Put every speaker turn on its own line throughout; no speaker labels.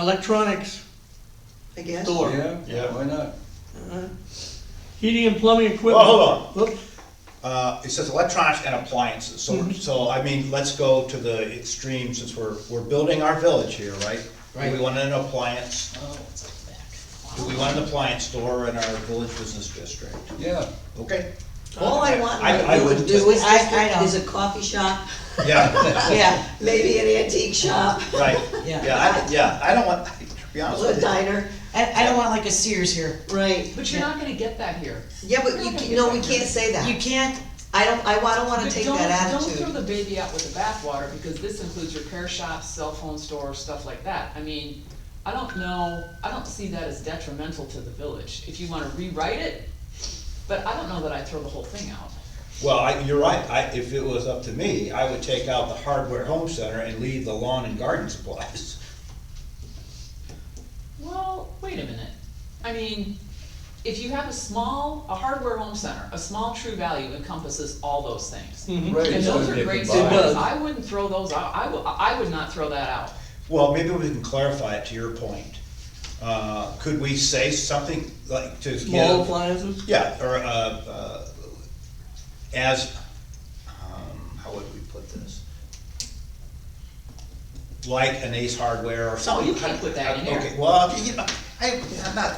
electronics, I guess.
Door.
Yeah.
Yeah, why not?
Uh, Heating and plumbing equipment.
Well, Oh, hold
Whoop.
Uh, it says electronics and appliances, so,
Mm-hmm.
we're- so, I mean, let's go to the extreme, since we're, we're building our village here, right? Do we
Right.
want an appliance,
Oh, it's
do we want an appliance store in our village business district?
Yeah,
Okay,
All I want
I- I
in the
would-
do is,
I- I know.
is a coffee shop,
yeah,
yeah, maybe an antique shop,
right,
Yeah.
yeah, I, yeah, I don't want, to be honest
a
with you.
diner,
I, I don't want like a Sears here.
right.
But you're not gonna get that here.
Yeah, but you, can- no, we can't say
You
that.
can't,
I don't, I wa- I don't wanna
But
take
don't-
that
Don't
attitude.
throw the baby out with the bathwater, because this includes repair shops, cell phone stores, stuff like that. I mean, I don't know, I don't see that as detrimental to the village, if you wanna rewrite it, but I don't know that I throw the whole thing out.
Well, I, you're right, I, if it was up to me, I would take out the hardware home center and leave the lawn and garden supplies.
Well, wait a minute, I mean, if you have a small, a hardware home center, a small true value encompasses all those things.
Mhm.
right.
And
so
those
they
are great
combine.
does.
supplies, I wouldn't throw those out, I would, I would not throw that out.
Well, maybe we can clarify it to your point. Uh, could we say something like to give?
Small appliances.
Yeah, or, uh, uh, as, um, how would we put this? Like an Ace Hardware or something.
you can't put that in there.
Okay, well, you know, I, I'm not,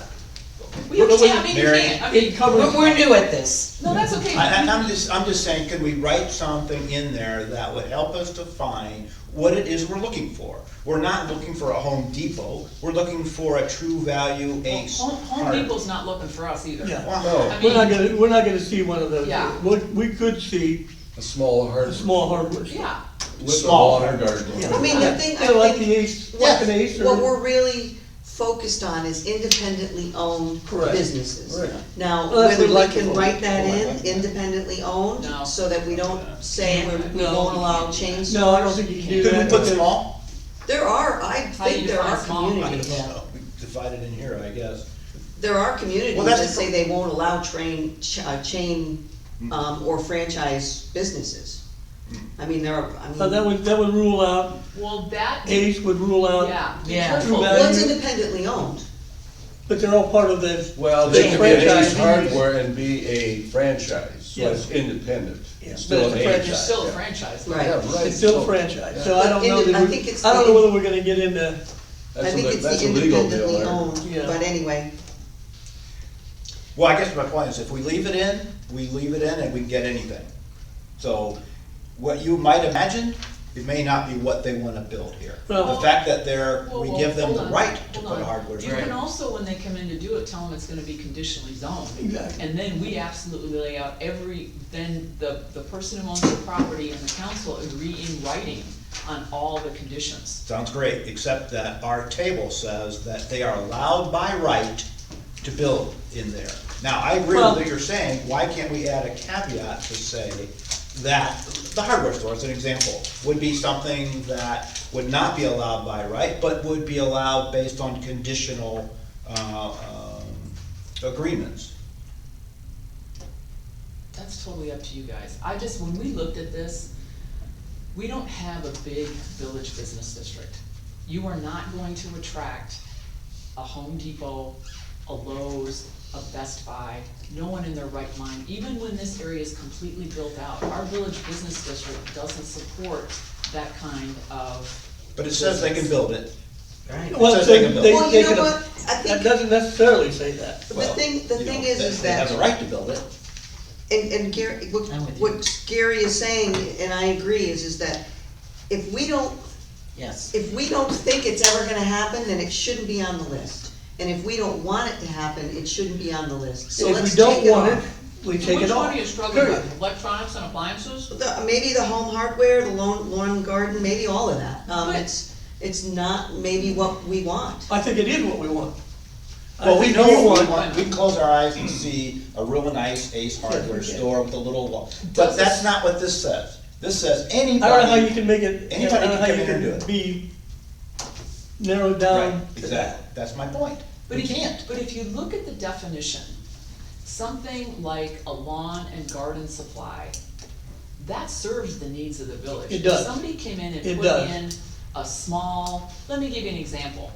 Well, You
Well,
can't, I mean, you
Mary,
can't, I mean.
It covers.
we're, we're new at this.
No, that's okay.
I, I- I'm just, I'm just saying, could we write something in there that would help us define what it is we're looking for? We're not looking for a Home Depot, we're looking for a true value Ace.
Home, Home
Hard-
Depot's not looking for us either.
Yeah.
Well,
I
We're not
mean-
gonna, we're not gonna see one of those.
Yeah.
What, we could see
A small hard.
a small hardware. store.
Yeah,
With a
Small.
lawn and garden.
Yeah.
I mean, the thing,
Yeah,
I
like the
think,
Ace, like an Ace
what, what
or.
we're really focused on is independently owned
Correct.
businesses.
Right.
Now,
Well, that's
whether
what
we
Lucky
can
Folk-
write that
Folk
in,
like that.
independently owned,
No.
so that we don't say we're- we
No.
won't allow chain stores.
No, I don't think you can do that.
Could we put
because-
small?
There are, I
How do you
think there are
define small?
I
communities.
don't know, we divide it in here, I guess.
There are communities
Well, that's
that say
the
they won't allow train, ch- uh, chain,
Mm-hmm.
um, or franchise businesses. I mean, there are, I mean,
So Uh, that
well,
would, that would rule out,
well, that, yeah,
Ace would rule out,
be
Yeah.
careful.
True
it's
value.
independently owned.
but they're all part of the,
Well, they
Yeah.
could be an Ace
Franchise.
Hardware and be a franchise, so it's independent.
Yeah.
It's
But
still
it's a
an Ace.
franchise.
You're still a
yeah.
franchise.
Right.
Yeah, right.
it's still
so-
franchise,
yeah.
so I don't know
But
that
I
we,
think it's
I don't know
the-
whether we're gonna get into,
That's
I
a
think
le-
it's
that's
the
a legal deal
independently
there.
owned,
Yeah.
but anyway,
Well, I guess my point is, if we leave it in, we leave it in and we can get anything. So, what you might imagine, it may not be what they wanna build here. The
Well-
fact that they're,
Whoa,
we
whoa,
give them
hold
the
on,
right to
hold
put
on.
hardware.
You can also, when they come in to do it, tell them it's gonna be conditionally zoned.
Exactly.
And then we absolutely lay out every, then the, the person who owns the property and the council agree in writing on all the conditions.
Sounds great, except that our table says that they are allowed by right to build in there. Now, I agree with
Well-
what you're saying, why can't we add a caveat to say that the hardware store, as an example, would be something that would not be allowed by right, but would be allowed based on conditional, uh, um, agreements?
That's totally up to you guys. I just, when we looked at this, we don't have a big village business district. You are not going to attract a Home Depot, a Lowe's, a Best Buy, no one in their right mind, even when this area is completely built out. Our village business district doesn't support that kind of.
But it says they can build it.
Right.
well,
says
they,
they can build.
they,
Well,
they
you know
could,
what? I
that
think-
doesn't necessarily say that.
the
Well,
thing, the
you
thing
know,
is,
they-
is
They have
that,
the right to build it.
and, and Gary, what,
I'm with you.
what Gary is saying, and I agree, is, is that if we don't
Yes.
if we don't think it's ever gonna happen, then it shouldn't be on the list. And if we don't want it to happen, it shouldn't be on the list, so
If
let's
we
take
don't
it
want it,
off.
we
So
take it
Which
off.
one are you struggling
Period.
with? Electronics and appliances?
The- Maybe the home hardware, the lawn, lawn and garden, maybe all of that, um,
Right.
it's, it's not maybe what we want.
I think it is what we want. I
Well, we
think
know
you
what we
want-
want, we can close our eyes and see a real nice Ace Hardware
Yeah.
store with a little wall, but that's not what this says. This says anybody.
I don't know how you can make it, I
Anybody
don't know
can
how
come
you
in and do
can
it.
be narrowed
Right,
down. to
exactly, that's my point,
But
we
if,
can't.
but if you look at the definition, something like a lawn and garden supply, that serves the needs of the village.
It does.
If somebody came in
It
and put
does.
in a small, let me give you an example.